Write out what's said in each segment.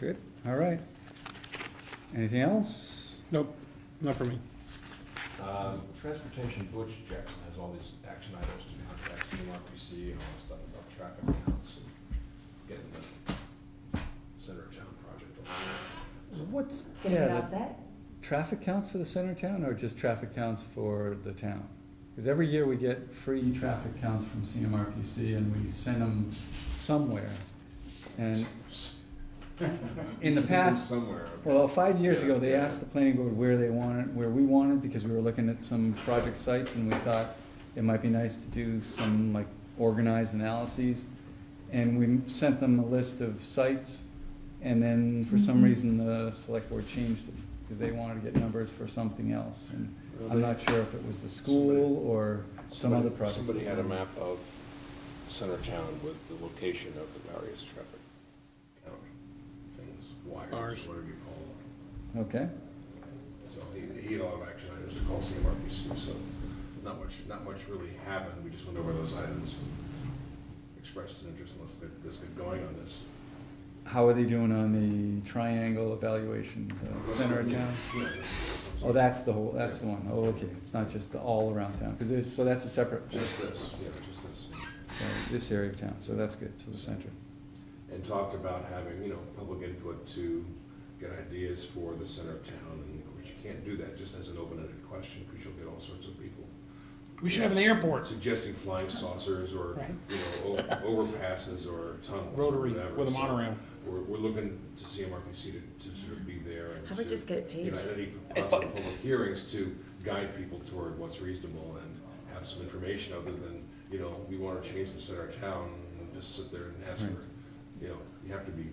Good, all right. Anything else? Nope, not for me. Um, Transportation, Butch Jackson has all these action items to contact CMRPC and all that stuff about traffic counts and getting the center of town project. over. What's, Get it yeah, off the that? traffic counts for the center of town or just traffic counts for the town? Because every year we get free traffic counts from CMRPC and we send them somewhere. And in the past, Somewhere. Well, five years ago, they Yeah, yeah. asked the planning board where they wanted, where we wanted, because we were looking at some project sites and we thought it might be nice to do some like organized analyses. And we sent them a list of sites and then for some Mhm. reason the select board changed it because they wanted to get numbers for something else. And I'm not sure if it was the school or some other project. Somebody had a map of center town with the location of the various traffic count things, wires, Ours. whatever you call them. Okay, So he, he had a lot of action items to call CMRPC, so not much, not much really happened, we just went over those items. and Expressed an interest unless they're, this good going on this. how are they doing on the triangle evaluation, the center of town? Yeah. Oh, that's the whole, that's the one. Oh, okay, it's not just the all around town, because there's, so that's a separate, Just this, yeah, just this. so this area of town, so that's good, so the center. And talked about having, you know, public input to get ideas for the center of town, and of course, you can't do that just as an open-ended question, because you'll get all sorts of people We should have an airport, suggesting flying saucers, or, Right. you know, o- overpasses, or tunnels. or rotary whatever, with a so- monorail. We're, we're looking to CMRPC to, to sort of be there and How about to, just get it you know, paved? at any possible public hearings to guide people toward what's reasonable and have some information other than, you know, we want to change this in our town, and just sit there and ask for, Right. it. you know, you have to be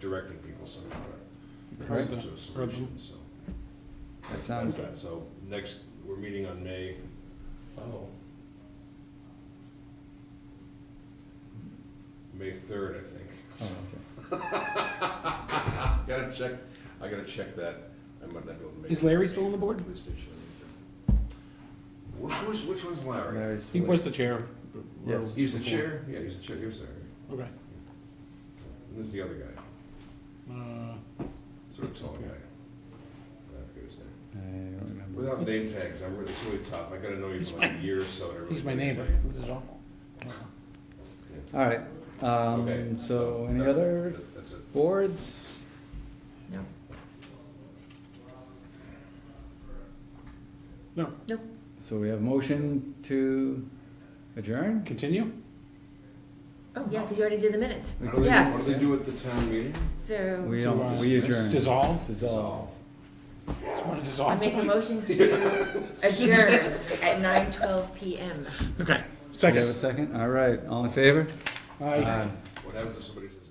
directing people somehow, or Right. some sort of solution, so. That sounds, That's that. So next, we're meeting on May, oh. May third, I think. oh, okay. Gotta check, I gotta check that, I might not be able to make. Is Larry still on the board? Police station. Which, which, which one's Larry? Larry's He was select- the chair. Yes. He's the chair, yeah, he's the chair, he was Larry. Okay. And there's the other guy, Uh, sort of tall guy. I forget his name. I don't remember. Without name tags, I'm really, it's really tough, I gotta know you He's for like my- a year or so. to really He's my get neighbor. your name. This is awful. Yeah. All right, Okay, um, so any that's- other that- That's it. boards? No. No, Nope. So we have motion to adjourn? continue? Oh, yeah, because you already did the minutes. What do they do- Yeah. What do they do at the town We meeting? So To, uh, don't, we adjourn. Dissolve? Dissolve. Just want to I dissolve. make a motion to adjourn at nine twelve PM. Okay, Do you have a second. second? All right, all in favor? Aye. What happens if somebody says?